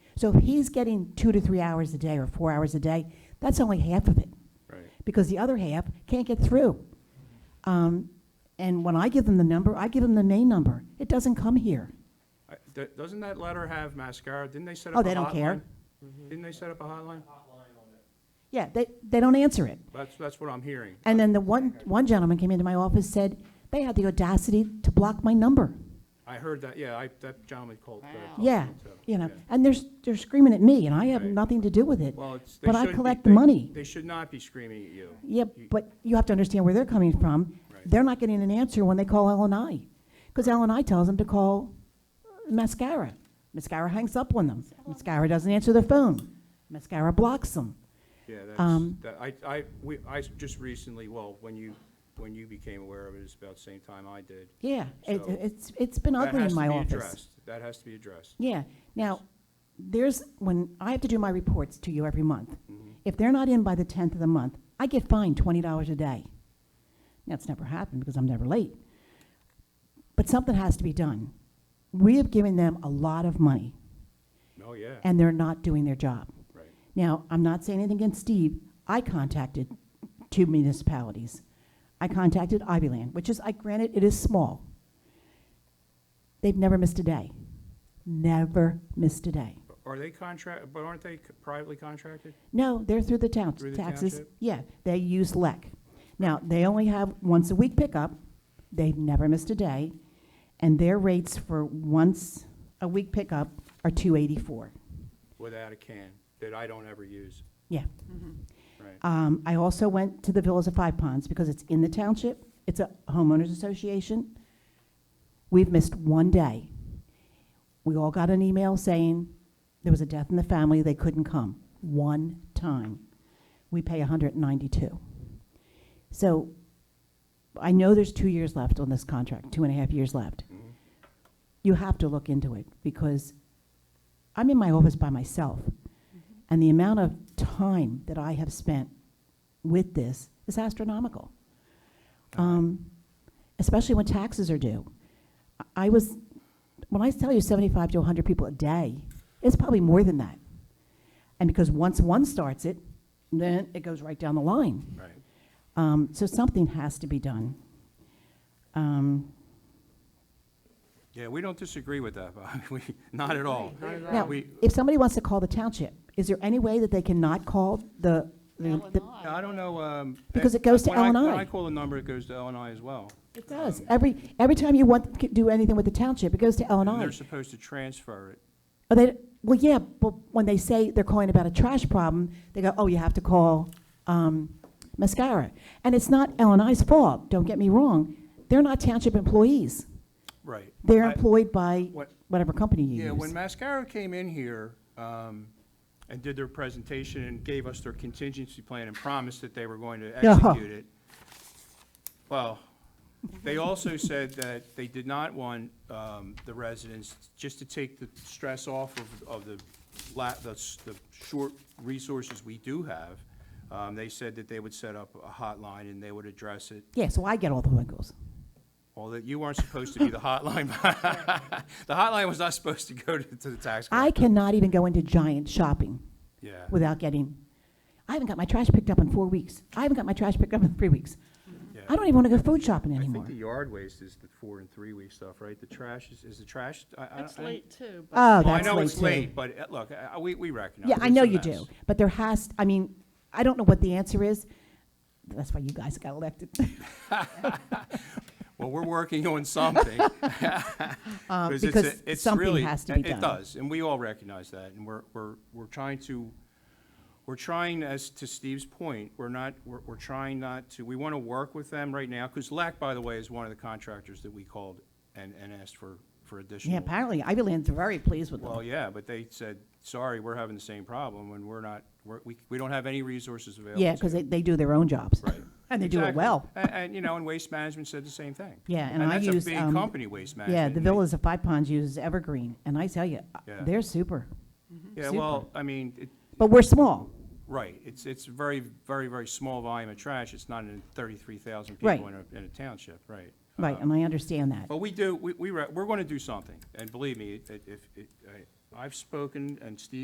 So if he's getting two to three hours a day or four hours a day, that's only half of it, Right. because the other half can't get through. Um, And when I give them the number, I give them the main number. It doesn't come here. I- do- Doesn't that letter have mascara? Didn't they set Oh, up a hotline? they don't care. Didn't they set up a hotline? Yeah, they, they don't answer it. That's, that's what I'm hearing. And then the one, one gentleman came into my office, said they had the audacity to block my number. I heard that, yeah, I, that gentleman called. uh, Wow. called Yeah, me, so, you know, yeah. and they're, s- they're screaming at me, and I have Right. nothing to do with it. Well, it's. they But I shouldn't be- collect the they- money. They should not be screaming at you. Yeah, You- but you have to understand where they're coming from. Right. They're not getting an answer when they call LNI, because LNI tells them to call uh, Mascara. Mascara hangs up on them. Mascara doesn't answer their phone. Mascara blocks them. Yeah, that's, um, that, I, I, we, I s- just recently, well, when you, when you became aware of it, it's about the same time I did. Yeah, it, So- it's, it's been That ugly has in to my be office. addressed. That has to be addressed. Yeah, now, there's, when, I have to do my reports to you every month. If they're not in by the 10th of the month, I get fined $20 a day. That's never happened because I'm never late. But something has to be done. We have given them a lot of money, Oh, yeah, and they're not doing their job. right. Now, I'm not saying anything against Steve. I contacted two municipalities. I contacted Ivyland, which is, I granted, it is small. They've never missed a day. Never missed a day. But Are they contract, but aren't they c- privately contracted? No, they're through the town, Through the taxes. township? Yeah, they use LEC. Now, they only have once a week pickup. They've never missed a day. And their rates for once a week pickup are two eighty-four. Without a can, that I don't ever use, Yeah. right? Um, I also went to the Villas of Five Ponds because it's in the township. It's a homeowners association. We've missed one day. We all got an email saying there was a death in the family, they couldn't come. One time. We pay 192. So I know there's two years left on this contract, two and a half years left. Mhm. You have to look into it because I'm in my office by myself. And the amount of time that I have spent with this is astronomical, um, especially when taxes are due. I- I was, when I tell you 75 to 100 people a day, it's probably more than that. And because once one starts it, then it goes right down the line. Right. Um, so something has to be done. Um, Yeah, we don't disagree with that, Bob. We, not at all. Not at now, all. We- if somebody wants to call the township, is there any way that they cannot call the, the, the- Illinois. I don't know, um. Because eh, it goes to when I- When L&I. I call the number, it goes to L and I as well. Um, It does. Every, every time you want, to do anything with the township, it goes to L and And I. they're supposed to transfer it. Are they, well, yeah, but when they say they're calling about a trash problem, they go, oh, you have to call, um, Mascara. And it's not L and I's fault, don't get me wrong. They're not township employees. Right. They're I- employed by what- whatever company you use. Yeah, when Mascaro came in here um, and did their presentation and gave us their contingency plan and promised that they were going to Yeah. execute it, well, they also said that they did not want um, the residents, just to take the stress off of, of the, la- the s- the short resources we do have, um, they said that they would set up a hotline and they would address it Yeah, so I get all the wiggles. well, that you weren't supposed to be the hotline. The hotline was not supposed to go to to the tax collector. I cannot even go into Giant shopping Yeah. without getting, I haven't got my trash picked up in four weeks. I haven't got my trash picked up in three weeks. Yeah. I don't even want to go food shopping I anymore. think the yard waste is the four and three week stuff, right? The trash is, is the trash? I- I- That's I- late too. but- Oh, Well, I that's know it's too. late, but uh, look, I- I- we, we recognize. Yeah, I it's know a you mess. do, but there has, I mean, I don't know what the answer is. That's why you guys got elected. Well, we're working on something. Uh, 'cause it's a- Because it's something really- has to be it- done. It does, and we all recognize that, and we're, we're, we're trying to, we're trying, as to Steve's point, we're not, we're, we're trying not to, we want to work with them right now, because LAC, by the way, is one of the contractors that we called and, and asked for, for additional. Yeah, apparently, Ivy Land's very pleased with Well, them. yeah, but they said, sorry, we're having the same problem, and we're not, we're, we, we don't have any resources available. Yeah, because to they, you." they do their own jobs. Right. And they do it Exactly. well. A- And, you know, and Waste Management said the same thing. Yeah, and I that's use, a big um, company, Waste Management. Yeah, the and they- Villas of Five Ponds uses Evergreen, and I tell you, uh, Yeah. they're super. Yeah, Super. well, I mean, it, But we're small. right, it's, it's very, very, very small volume of trash, it's not in thirty-three thousand Right. people in a, in a township, right? Right, Um, and I understand that. But we do, we, we, re- we're gonna do something, and believe me, it- if, it- I- I've spoken, and Steve